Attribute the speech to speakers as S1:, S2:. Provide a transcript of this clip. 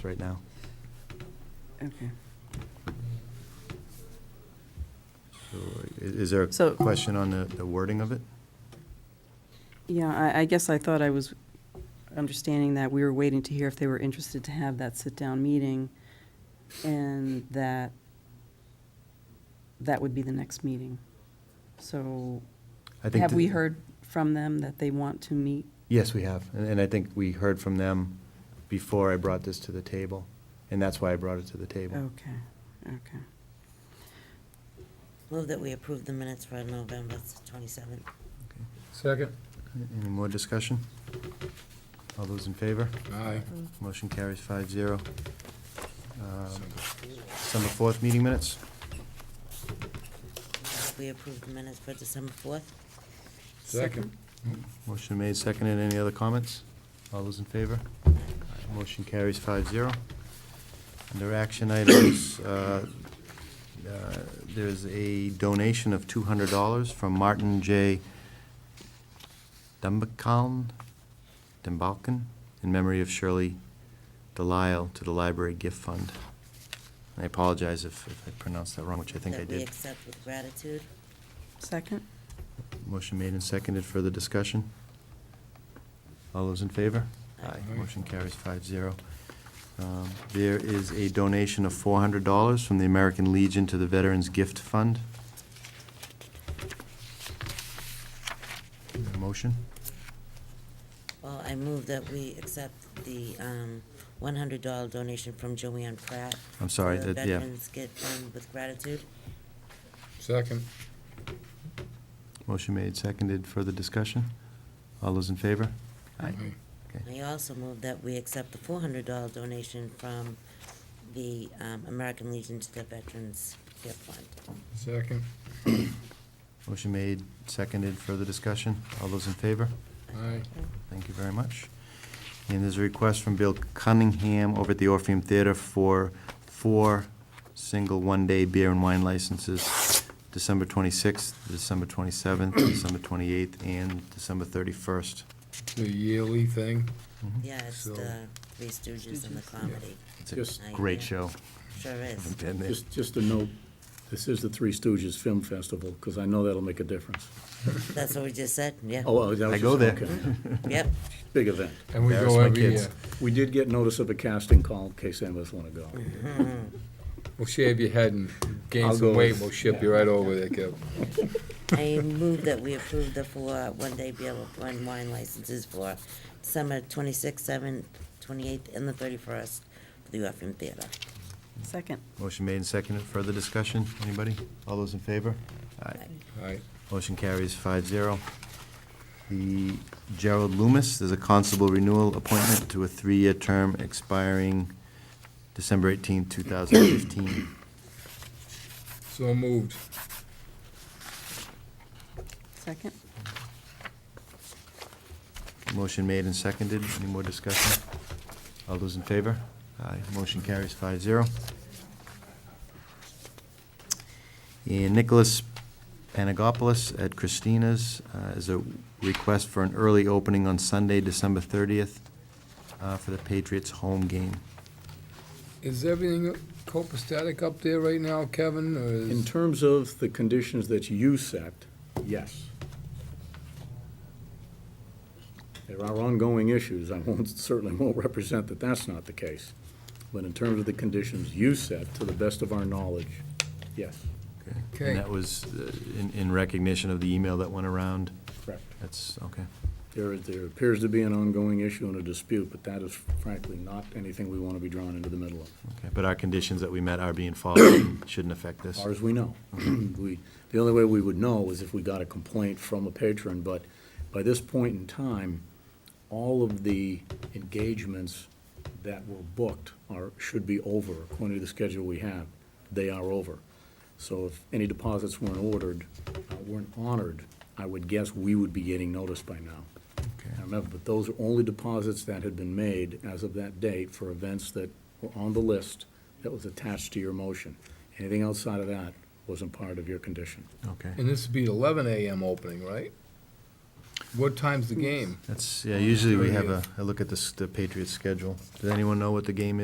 S1: right now.
S2: Okay.
S3: So, i- Is there a
S2: So-
S3: question on the the wording of it?
S2: Yeah, I, I guess I thought I was understanding that we were waiting to hear if they were interested to have that sit-down meeting, and that that would be the next meeting. So
S3: I think
S2: have
S3: that-
S2: we heard from them that they want to meet?
S3: Yes, we have. And and I think we heard from them before I brought this to the table, and that's why I brought it to the table.
S2: Okay, okay.
S4: Move that we approve the minutes for November 27th.
S3: Okay.
S5: Second.
S3: Any more discussion? All those in favor?
S5: Aye.
S3: Motion carries five zero. Um, December 4th, meeting minutes?
S4: We approve the minutes for December 4th.
S5: Second.
S3: Motion made, seconded. Any other comments? All those in favor? Motion carries five zero. Under action items, uh, uh, there's a donation of two hundred dollars from Martin J. Dumbakaln, Dumbalkin, in memory of Shirley Delisle to the Library Gift Fund. I apologize if if I pronounced that wrong, which I think I
S4: That we
S3: did.
S4: accept with gratitude.
S2: Second?
S3: Motion made and seconded. Further discussion? All those in favor?
S4: Aye.
S5: Aye.
S3: Motion carries five zero. Um, There is a donation of four hundred dollars from the American Legion to the Veterans Gift Fund. Is there a Motion?
S4: Well, I move that we accept the um, $100 donation from Joanne Pratt.
S3: I'm sorry,
S4: for the
S3: that- yeah.
S4: Veterans Gift Fund with gratitude.
S5: Second.
S3: Motion made, seconded. Further discussion? All those in favor? Aye. Okay.
S4: I also move that we accept the $400 donation from the um, American Legion to the Veterans Gift Fund.
S5: Second.
S3: Motion made, seconded. Further discussion? All those in favor?
S5: Aye.
S3: Thank you very much. And there's a request from Bill Cunningham over at the Orpheum Theater for four single one-day beer and wine licenses, December 26th, December 27th, December 28th, and December 31st.
S5: The yearly thing.
S3: Mhm.
S4: Yeah, it's
S5: So-
S4: the Three Stooges and the comedy.
S3: It's a
S6: Yes.
S3: great show.
S4: Sure is.
S3: Haven't been there.
S6: Just, just a note, this is the Three Stooges Film Festival, because I know that'll make a difference.
S4: That's what we just said, yeah.
S6: Oh, oh, that was
S3: I go
S6: just-
S3: there.
S6: okay.
S4: Yep.
S6: Big event.
S5: And we
S3: Embarrass
S5: go
S3: my
S5: Oh, every
S3: kids.
S5: year.
S6: We did get notice of a casting call, in case any of us want to go.
S5: We'll shave your head and gain
S6: I'll
S5: some
S6: go
S5: weight,
S6: with-
S5: we'll ship you right over there, Kev.
S4: I move that we approve the four one-day beer and wine licenses for December twenty-sixth, seventh, twenty-eighth, and the thirty-first for the Orpheum Theater.
S2: Second.
S3: Motion made and seconded. Further discussion? Anybody? All those in favor? Aye.
S5: Aye.
S3: Motion carries five zero. The Gerald Loomis, there's a constable renewal appointment to a three-year term expiring December eighteenth, two thousand fifteen.
S5: So moved.
S2: Second?
S3: Motion made and seconded. Any more discussion? All those in favor? Aye. Motion carries five zero. And Nicholas Panagopoulos at Christina's uh, is a request for an early opening on Sunday, December thirtieth, uh, for the Patriots home game.
S5: Is everything copacetic up there right now, Kevin, or
S6: In
S5: is?
S6: terms of the conditions that you set, yes. There are ongoing issues, I won't, certainly won't represent that that's not the case. But in terms of the conditions you set, to the best of our knowledge, yes,
S5: Okay.
S3: And that was uh, in, in recognition of the email that went around.
S6: correct.
S3: That's, okay.
S6: There, there appears to be an ongoing issue and a dispute, but that is frankly not anything we want to be drawn into the middle of,
S3: Okay, but our conditions that we met are being followed and shouldn't affect
S6: as
S3: this.
S6: far as we know. We, the only way we would know is if we got a complaint from a patron, but by this point in time, all of the engagements that were booked are, should be over, according to the schedule we have. They are over. So if any deposits weren't ordered, uh, weren't honored, I would guess we would be getting notice by now.
S3: Okay.
S6: I remember, but those are only deposits that had been made as of that date for events that were on the list that was attached to your motion. Anything outside of that wasn't part of your condition.
S3: Okay.
S5: And this would be the eleven AM opening, right? What time's the game?
S3: That's, yeah, usually we have a, a look at this, the Patriots schedule. Does anyone know what the game is?